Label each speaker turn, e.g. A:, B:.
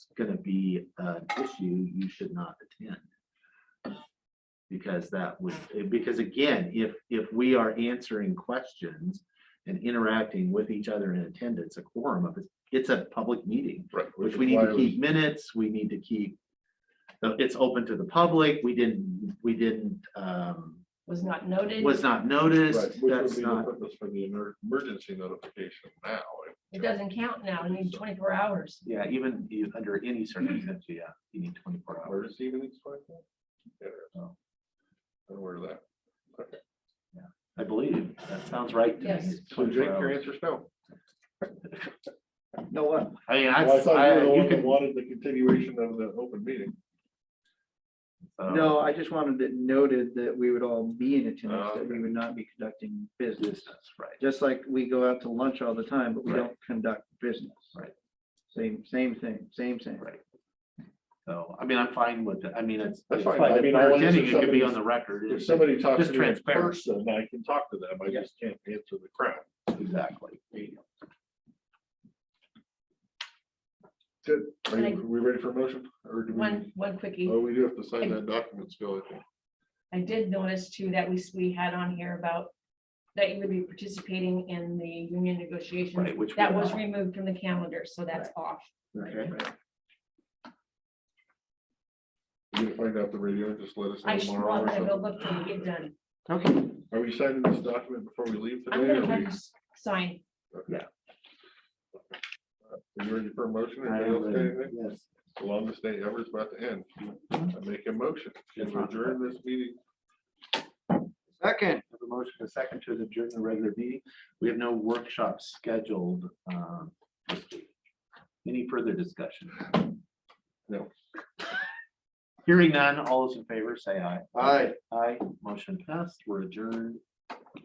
A: gonna be an issue, you should not attend. Because that would, because again, if, if we are answering questions and interacting with each other in attendance, a quorum of, it, it's a public meeting,
B: Right.
A: which we need to
B: is
A: keep minutes, we need to keep, uh, it's open to the public, we didn't, we didn't, um,
C: was not noted.
A: was not
B: why- Right,
A: noticed,
B: which would
A: that's
B: be the
A: not,
B: purpose for the emer- emergency notification now.
C: It doesn't count now, it needs twenty-four hours.
A: yeah, even you- under any circumstance, yeah, you need twenty-four hours.
B: Where does even expect that? There.
A: Oh.
B: And where that? Okay.
A: I believe, that sounds right. to me.
C: Yes.
A: It's
B: So Jake,
A: 24
B: your
A: hours.
B: answer's no.
D: No one.
A: I mean,
B: Well, I thought you were
A: I,
B: the one
A: you
B: that
A: can.
B: wanted the continuation of the open meeting.
A: Uh, um,
D: No, I just wanted it noted that we would all be in attendance,
B: Oh,
D: that we would not be conducting business.
A: That's right.
D: Just like we go out to lunch all the time, but we
A: Right.
D: don't conduct business.
A: Right.
D: Same, same thing, same thing.
A: Right. So, I mean, I'm fine with it. I mean, it's.
B: That's
A: it's
B: fine.
A: fine.
B: I
A: If
B: mean,
A: we're
B: I wanted
A: attending,
B: to-
A: It could be on
B: somebody's-
A: the record.
B: If
A: It's-
B: somebody talks
A: Just
B: to me in
A: transparent.
B: person, I can talk to them. I
D: Yeah.
B: just can't answer the crowd.
A: Exactly.
B: Good. Are
C: And I-
B: you, are we ready for a motion? Or
A: Mm-hmm.
B: do we?
C: One, one quickie,
B: Oh, we do have to sign that document still, I think.
C: I did notice too that we, we had on here about that you would be participating in the union negotiations.
A: Right, which.
C: That
A: we
C: was
A: are.
C: removed from the calendar, so that's off.
A: Okay.
B: You can find out the radio, just let us know
C: I should,
B: tomorrow.
C: I'm
B: or
C: gonna go
B: something.
C: look till we get done.
A: Okay.
B: Are we signing this document before we leave today?
C: I'm
B: or
C: gonna
B: we-
C: have to sign.
B: Are you ready for a motion?
A: I
B: or
A: am
B: anything else,
A: ready.
B: anything?
A: Yes.
B: The longest day ever is about to end. I make a motion to adjourn this meeting.
A: Second, the motion is second to adjourn the regular meeting. We have no workshop scheduled. um, this week. Any further discussion?
B: No.
A: Hearing none, all those in favor, say aye.
B: Aye.
A: Aye, motion passed. We're adjourned.